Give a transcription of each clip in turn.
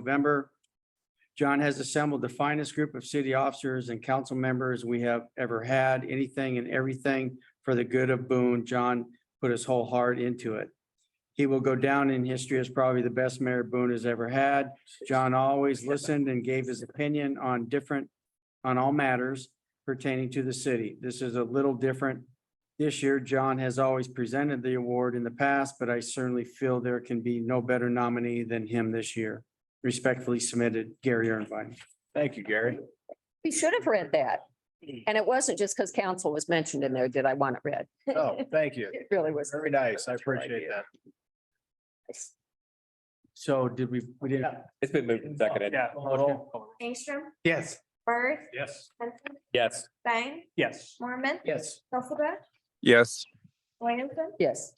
November. John has assembled the finest group of city officers and council members we have ever had, anything and everything for the good of Boone. John put his whole heart into it. He will go down in history as probably the best mayor Boone has ever had. John always listened and gave his opinion on different, on all matters pertaining to the city. This is a little different. This year, John has always presented the award in the past, but I certainly feel there can be no better nominee than him this year. Respectfully submitted, Gary Irvine. Thank you, Gary. We should have read that. And it wasn't just because council was mentioned in there, did I want it read? Oh, thank you. It really was. Very nice. I appreciate that. So did we, we did, It's been moved and seconded. Yeah. Angstrom, yes. Bird, Yes. Henson, Yes. Stein, Yes. Mormon, Yes. Hilsaback, Yes. Williamson, Yes.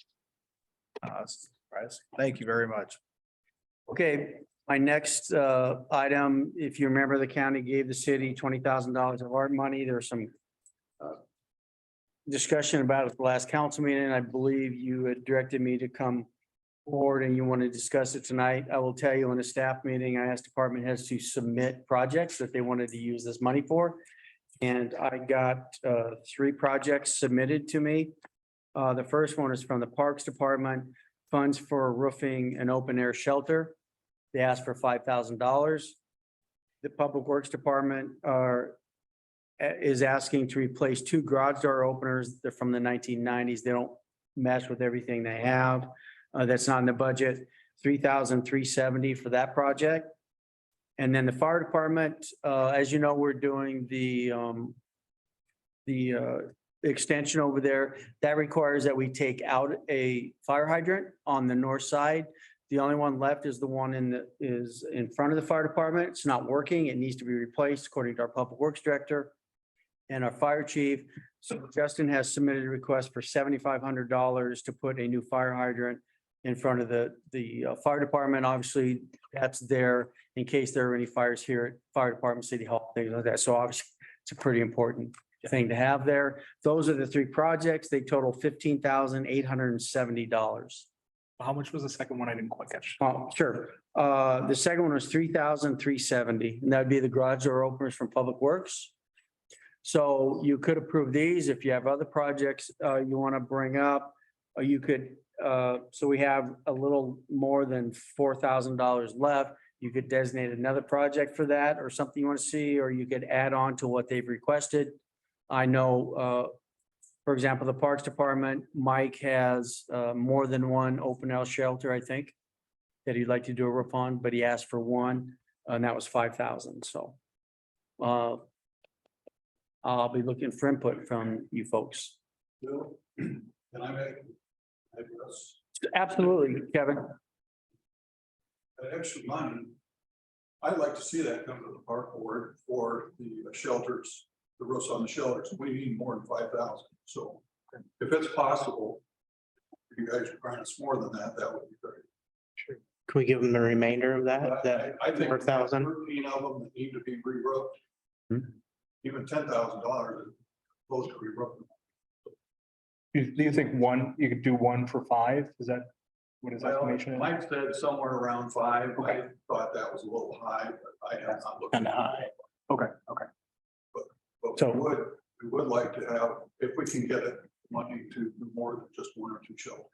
Uh, surprise. Thank you very much. Okay, my next uh item, if you remember, the county gave the city twenty thousand dollars of our money. There's some uh, discussion about it at the last council meeting, and I believe you had directed me to come forward and you want to discuss it tonight. I will tell you in a staff meeting, I asked department heads to submit projects that they wanted to use this money for. And I got uh three projects submitted to me. Uh, the first one is from the Parks Department funds for roofing an open air shelter. They asked for five thousand dollars. The Public Works Department are uh, is asking to replace two garage door openers. They're from the nineteen nineties. They don't mess with everything they have. Uh, that's not in the budget. Three thousand three seventy for that project. And then the fire department, uh, as you know, we're doing the um the uh extension over there. That requires that we take out a fire hydrant on the north side. The only one left is the one in the, is in front of the fire department. It's not working. It needs to be replaced according to our public works director and our fire chief. So Justin has submitted a request for seventy-five hundred dollars to put a new fire hydrant in front of the, the uh, fire department. Obviously, that's there in case there are any fires here at fire department, city hall, things like that. So obviously, it's a pretty important thing to have there. Those are the three projects. They total fifteen thousand eight hundred and seventy dollars. How much was the second one? I didn't quite catch. Oh, sure. Uh, the second one was three thousand three seventy, and that'd be the garage door openers from Public Works. So you could approve these if you have other projects, uh, you want to bring up, or you could, uh, so we have a little more than four thousand dollars left. You could designate another project for that or something you want to see, or you could add on to what they've requested. I know, uh, for example, the Parks Department, Mike has, uh, more than one open house shelter, I think that he'd like to do a roof on, but he asked for one, and that was five thousand, so. Uh. I'll be looking for input from you folks. Bill, can I make? I guess, Absolutely, Kevin. That extra money, I'd like to see that come to the park board for the shelters, the roofs on the shelters. We need more than five thousand, so if it's possible. if You guys grant us more than that, that would be great. Can we give them the remainder of that? Uh, But That, I- I think 4,000? Thirteen of them that need to be re-roofed. Hmm? Even ten thousand dollars, those to re-roof. You- Do you think one, you could do one for five? Is that what his Well, estimation is? Mike said somewhere around five. I thought that was a little high, but I have not looked. Kinda high. Okay, okay. But So- we would, we would like to have, if we can get it, money to do more than just one or two children.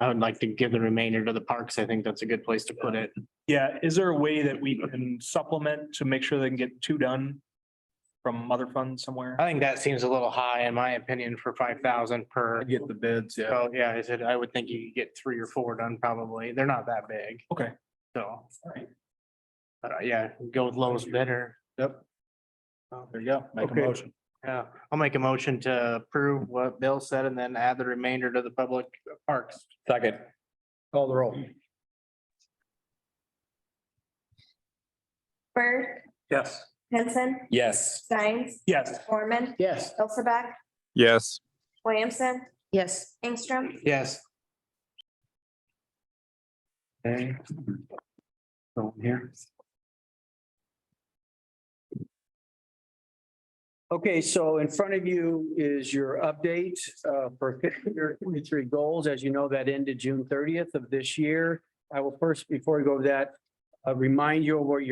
I would like to give the remainder to the parks. I think that's a good place to put it. Yeah, is there a way that we can supplement to make sure they can get two done from other funds somewhere? I think that seems a little high in my opinion for five thousand per. Get the bids, yeah. So, yeah, I said, I would think you could get three or four done probably. They're not that big. Okay. So. Alright. But uh, yeah, go with lowest bidder. Oh. There you go. Make a Okay. motion. Yeah, I'll make a motion to approve what Bill said and then add the remainder to the public parks. Second. Call the roll. Bird, Yes. Henson, Yes. Steins, Yes, Mormon, Yes. Hilsaback, Yes. Williamson, Yes. Angstrom, Yes. Okay. So I'm here. Okay, so in front of you is your update uh, for fiscal year twenty-three goals. As you know, that ended June thirtieth of this year. I will first, before we go over that, uh, remind you of what your